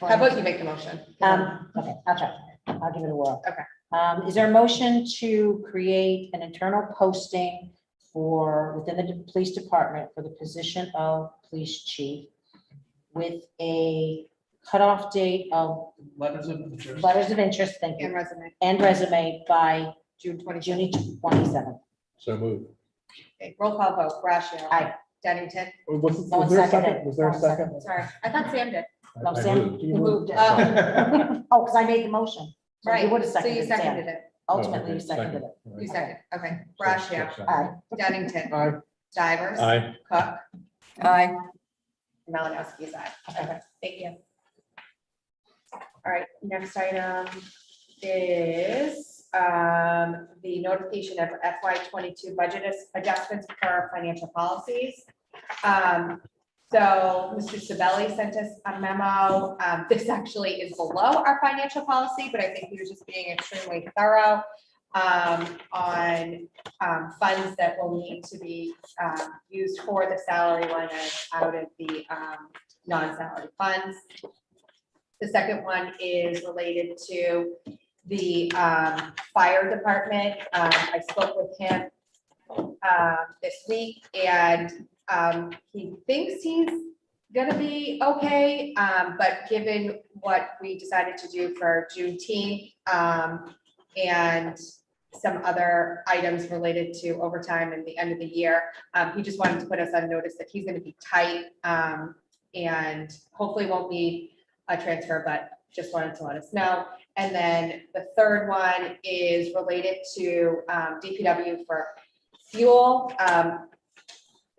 How about you make the motion? 'Cause I'm- Um, okay, I'll try. I'll give it a whirl. Okay. Um, is there a motion to create an internal posting for, within the de- police department for the position of police chief with a cutoff date of Letters of interest. letters of interest, thank And you, resume, and resume by June twenty. June twenty-seventh? So move. Okay, Roll call vote, Rashio. Aye. Dennington. Was, No one was there a seconded. second? Was there No one a second? Sorry, I thought Sam did. I- No, I Sam moved. You moved. Oh, because I made the motion. So Right, You would have so you seconded seconded it. it. Ultimately, Oh, you okay, seconded it. You Right. seconded, okay. So, Brashio, so- Aye. Dennington, Aye. Divers. Aye. Cook, Aye. Malinowski's aye. Okay, thank you. All right, next item is um, the notification of FY twenty-two budget as- adjustments for our financial policies. Um, So Mr. Sabelli sent us a memo. Um, This actually is below our financial policy, but I think he was just being extremely thorough um, on um, funds that will need to be um, used for the salary line item out of the um, non-salary funds. The second one is related to the um, fire department. Um, I spoke with him um, this week and um, he thinks he's gonna be okay. um, But given what we decided to do for Juneteenth um, and some other items related to overtime and the end of the year. Um, he just wanted to put us on notice that he's gonna be tight, um, and hopefully won't need a transfer, but just wanted to let us know. And then the third one is related to, um, DPW for fuel. Um,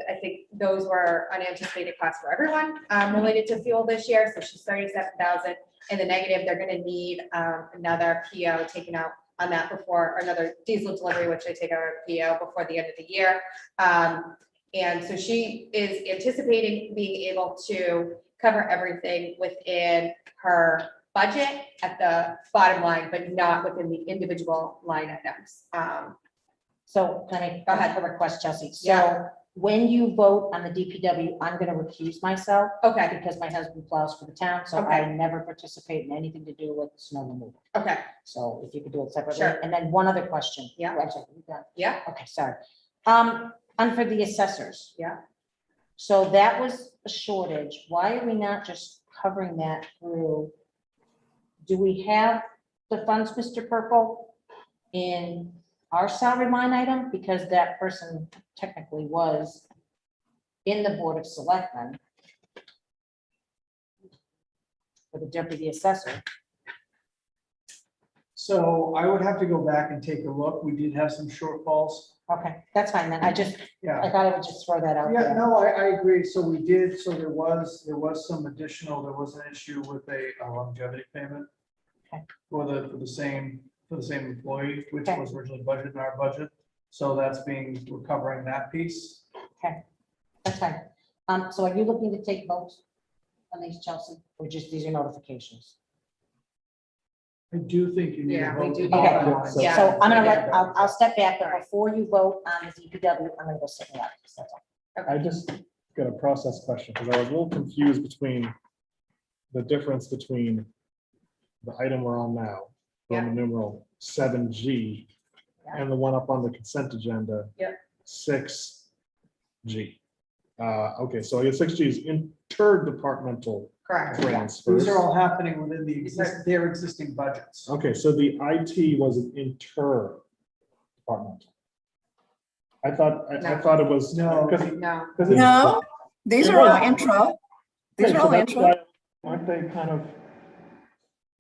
I think those were unanticipated costs for everyone, um, related to fuel this year, so she's thirty-seven thousand. In the negative, they're gonna need, um, another PO taken out on that before, or another diesel delivery, which I take out a PO before the end of the year. Um, and so she is anticipating being able to cover everything within her budget at the bottom line, but not within the individual line items. Um, So can I, Go go ahead. ahead, request, Chelsea. So Yeah. when you vote on the DPW, I'm going to recuse myself okay, because my husband plows for the town, so I Okay. never participate in anything to do with snow removal. okay, So if you could do it separately. Sure. And then one other question. Yeah. Wait a second, you got- Yeah. Okay, sorry. Um, and for the assessors. Yeah. So that was a shortage. Why are we not just covering that through? Do we have the funds, Mr. Purple, in our salary line item? Because that person technically was in the Board of Selectmen. For the deputy assessor. So I would have to go back and take a look. We did have some shortfalls. Okay, that's fine then. I just, Yeah. I thought I would just throw that out Yeah, there. no, I, I agree. So we did, so there was, there was some additional, there was an issue with a a longevity payment. Okay. For the, for the same, for the same employee, which Okay. was originally budgeted in our budget. So that's being, we're covering that piece. That's fine. Um, so are you looking to take votes on these, Chelsea, or just these are notifications? I do think you need Yeah, to we vote. do the need bottom to- line. So Yeah. I'm gonna let, Yeah. I'll, I'll step back, but before you vote on the DPW, I'm gonna go sit down. That's all. I just got a process question, because I was a little confused between the difference between the item we're on now, Roman numeral seven G, and the one up on the consent agenda. Yep. Six G. Uh, okay, so I guess six G is interdepartmental correct, transfers. These are all happening within the, exist- their existing budgets. Okay, so the IT was an inter department. I thought, I, I No. thought it was. No. 'cause- no. 'cause it's- No, these are all intro. These Okay, are so all that's intro. why- Aren't they kind of?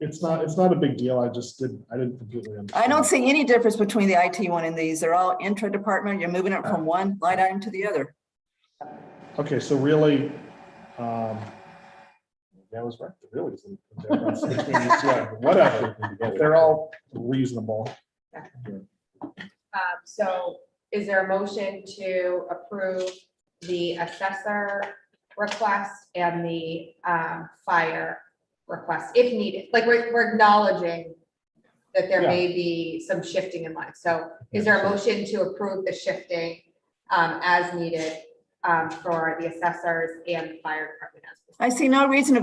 It's not, it's not a big deal. I just didn't, I didn't completely understand. I don't see any difference between the IT one and these. They're all intra department. You're moving it from one line item to the other. Okay, so really, um, that was right, It really. isn't. They're about 16, yeah, Whatever, they're all reasonable. Um, So is there a motion to approve the assessor request and the um, fire request if needed? Like, we're we're acknowledging that there may be some shifting in life. So is there a motion to approve the shifting um, as needed um, for the assessors and fire department? as I see no reason to